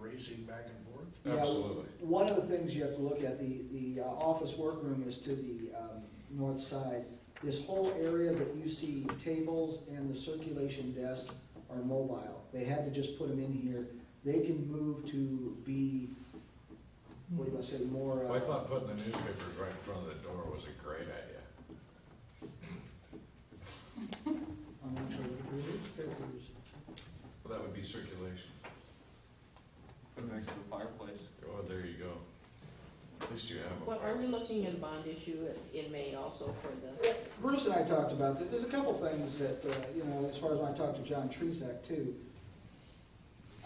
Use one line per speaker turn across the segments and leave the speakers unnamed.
racing back and forth?
Yeah. Uh,
Absolutely.
One of the things you have to look at, the, the uh, office workroom is to the um, north side. This whole area that you see tables and the circulation desk are mobile. They had to just put them in here. They can move to be, what do I say, more. uh,
Well, I thought putting the newspapers right in front of the door was a great idea.
I'm not sure what the word is.
Well, that would be circulation.
Put it next to the fireplace.
Oh, there you go. At least you have a
Well, are we
fire.
looking at a bond issue in May also for the,
Bruce and I talked about this, there's a couple things that, uh, you know, as far as when I talked to John Tresac too.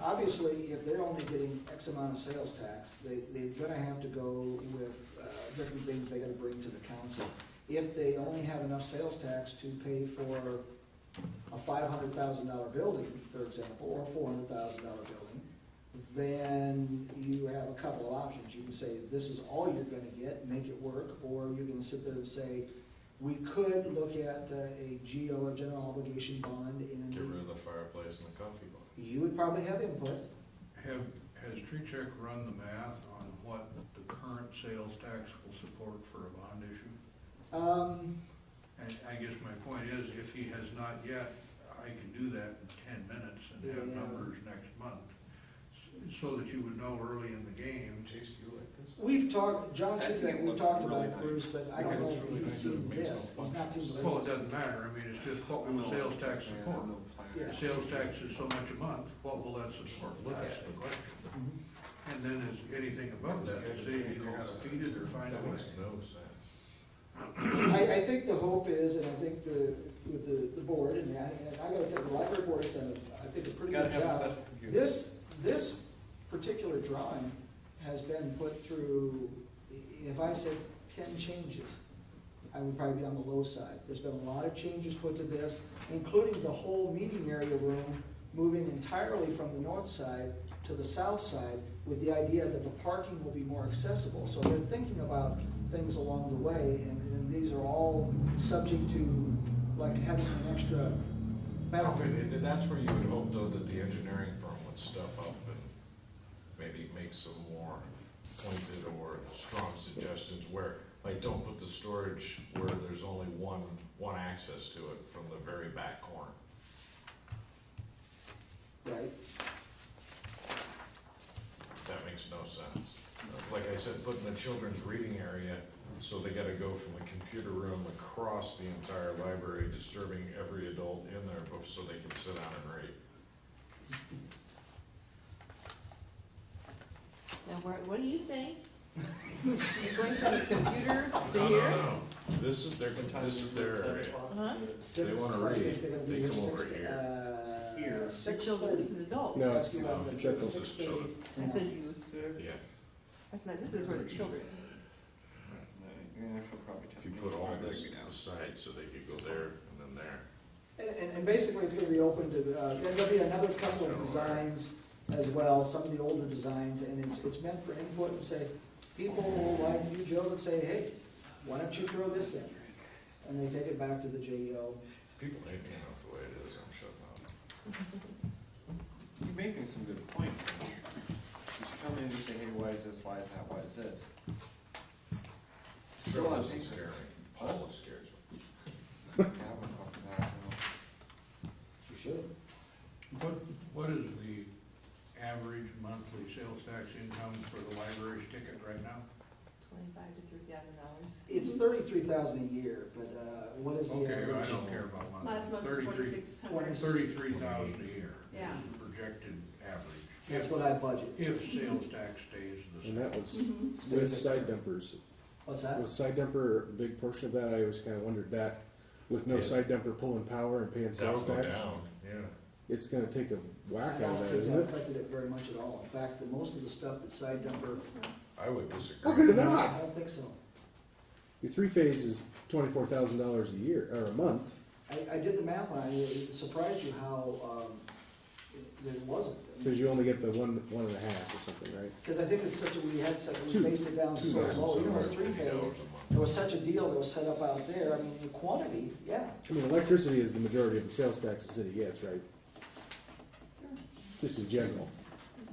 Obviously, if they're only getting X amount of sales tax, they, they're gonna have to go with, uh, different things they gotta bring to the council. If they only have enough sales tax to pay for a five hundred thousand dollar building, for example, or a four hundred thousand dollar building, then you have a couple of options. You can say, this is all you're gonna get, make it work, or you can sit there and say, we could look at uh, a GO, a general obligation bond,
Get
and
rid of the fireplace and the coffee bar.
you would probably have input.
Have, has Tree Check run the math on what the current sales tax will support for a bond issue?
Um,
And I guess my point is, if he has not yet, I can do that in ten minutes and have
Yeah.
numbers next month. s- So that you would know early in the game,
Taste you like this?
We've talked, John
I think
Tuzak,
it
we
looks
talked
really
about it,
nice.
Bruce, but I
Because
don't know
it's
if he's
really nice and
seen
it makes no
this. He's not seen the
well, it
latest.
doesn't matter, I mean, it's just
Oh,
what will the sales tax support?
No
Yeah.
plan.
If Sales tax is so much a month, what will that support?
Look at
That's the
it.
question.
Mhm.
And then is anything above Oh, that, the city either gotta feed it or find
That
a way.
makes no sense.
Mm-hmm. I, I think the hope is, and I think the, with the, the board, and I, and I gotta tell you, the library board has done, a- I think, a pretty
Gotta
good
have a
job.
special computer.
This, this particular drawing has been put through, i- if I said ten changes, I would probably be on the low side. There's been a lot of changes put to this, including the whole meeting area room moving entirely from the north side to the south side with the idea that the parking will be more accessible. So they're thinking about things along the way, and, and these are all subject to, like, having an extra bathroom.
And and that's where you would hope though that the engineering firm would step up and maybe make some more pointed or strong suggestions where, like, don't put the storage where there's only one, one access to it from the very back corner.
Right.
That makes no sense. Like I said, putting the children's reading area, so they gotta go from the computer room across the entire library, disturbing every adult in there, bef- so they can sit down and read.
now, what, what do you say? You're going from the computer to
No, no,
here?
no, this is their, this is their area.
Huh?
They wanna
Six, I think
read,
they're gonna
they
be
come
six
over
to-
here.
uh,
Here.
Six
Children
thirty.
versus adults.
No,
Ask you
it's-
about
no,
the
check this.
six
It's
thirty.
children.
I said youth, or-
Yeah,
that's not, this is for the children.
Yeah, she'll probably tell
if you
me
put all
probably
this
be down.
aside, so they could go there and then there.
And, and, and basically, it's gonna be open to, uh, then there'll be another couple of designs as well, some of the older designs, and it's, it's meant for input and say, people like you, Joe, would say, hey, why don't you throw this in? And they take it back to the E JEO.
People hate me enough the way it is, I'm shutting up.
You're making some good points. though. You should come in and say, hey, why is this, why is that, why is this?
Phil
Well, I
doesn't
think-
scare me, Paula scares me.
Yeah, we're talking about, you know.
You should.
What, what is the average monthly sales tax income for the library's ticket right now?
Twenty-five to three thousand dollars.
It's thirty-three thousand a year, but, uh, what is the
Okay, I
average?
don't care about monthly.
Last month, twenty-six hundred.
Twenty-
Thirty-three thousand a year.
Yeah.
is the Projected average.
That's
If,
what I budget.
if sales tax stays the same.
And that was
Mhm.
with side dumpers.
What's that?
Was side dumper a big portion of that? I always kind of wondered that. With no
Yeah.
side dumper pulling power and paying
That'll
sales
go
tax,
down, yeah.
it's going to take a
I
whack out
don't
of that,
think that
isn't it?
affected it very much at all. In fact, the most of the stuff that side dumper.
I would disagree.
How could it
I
not?
don't think so.
Your three phase is twenty four thousand dollars a year or a month.
I, I did the math on it. It surprised you how, um, it- that it wasn't.
Because you only get the one, one and a half or something, right?
Because I think it's such a, we had such, we
Two-
based it down so low, even though it's three
$2,750
phase.
a month.
There was such a deal that was set up out there. I mean, the quantity, yeah.
I mean, electricity is the majority of the sales tax the city gets, right? Just in general.